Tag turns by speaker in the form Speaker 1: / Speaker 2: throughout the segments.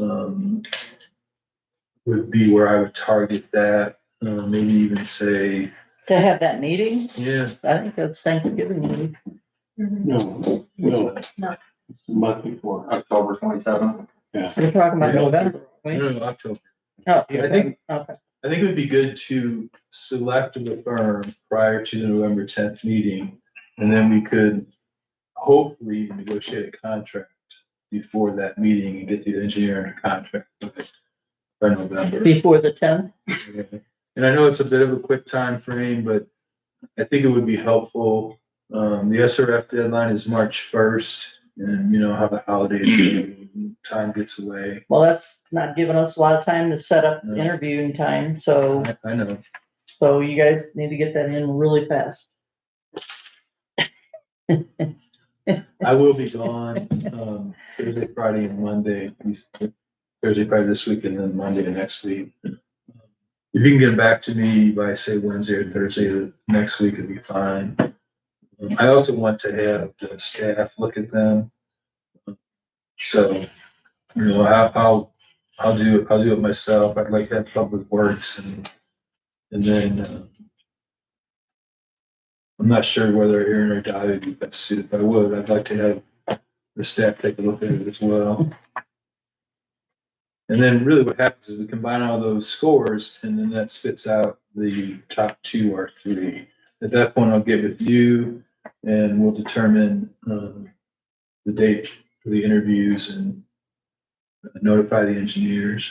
Speaker 1: um, would be where I would target that, uh, maybe even say,
Speaker 2: To have that meeting,
Speaker 1: yeah,
Speaker 2: I think that's Thanksgiving week.
Speaker 3: No, no.
Speaker 4: No.
Speaker 3: Month before.
Speaker 5: October twenty-seventh.
Speaker 2: We're talking about
Speaker 1: Yeah.
Speaker 2: November.
Speaker 1: I
Speaker 2: right?
Speaker 1: don't know, October.
Speaker 2: Oh,
Speaker 1: I think-
Speaker 2: okay.
Speaker 1: I think it would be good to select the firm prior to the November tenth meeting, and then we could hopefully negotiate a contract before that meeting and get the engineer in a contract with it by November.
Speaker 2: Before the tenth,
Speaker 1: And I know it's a bit of a quick time frame, but I think it would be helpful. Um, the SRF deadline is March first, and you know how the holidays, go, time gets away.
Speaker 2: well, that's not giving us a lot of time to set up
Speaker 1: No.
Speaker 2: interviewing time, so,
Speaker 1: I, I know.
Speaker 2: so you guys need to get that in really fast.
Speaker 1: I will be gone, um, Thursday, Friday and Monday, these- Thursday, Friday this week and then Monday next week. If you can get back to me by say Wednesday or Thursday of next week, it'd be fine. Um, I also want to have the staff look at them. So, you know, I- I'll, I'll do, I'll do it myself. I'd like to have public works and, and then, uh, I'm not sure whether Aaron or Dottie would be best suited, but I would, I'd like to have the staff take a look at it as well. And then really what happens is we combine all those scores and then that spits out the top two or three. At that point, I'll get with you and we'll determine, um, the date for the interviews and notify the engineers.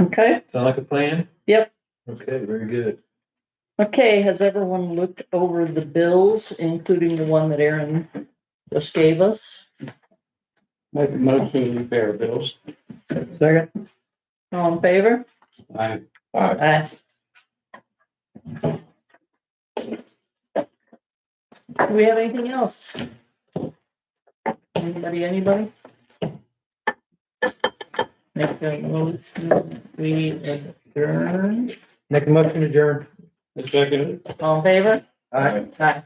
Speaker 2: Okay,
Speaker 1: Sound like a plan?
Speaker 2: Yep.
Speaker 1: Okay, very good.
Speaker 2: okay, has everyone looked over the bills, including the one that Aaron just gave us?
Speaker 3: Make a motion to pay our bills.
Speaker 2: Second. All in favor?
Speaker 3: I,
Speaker 2: Aye. Do we have anything else? Anybody, anybody? Make a motion, we adjourn,
Speaker 6: Make a motion to adjourn.
Speaker 3: second.
Speaker 2: all in favor?
Speaker 6: Aye.
Speaker 2: Aye.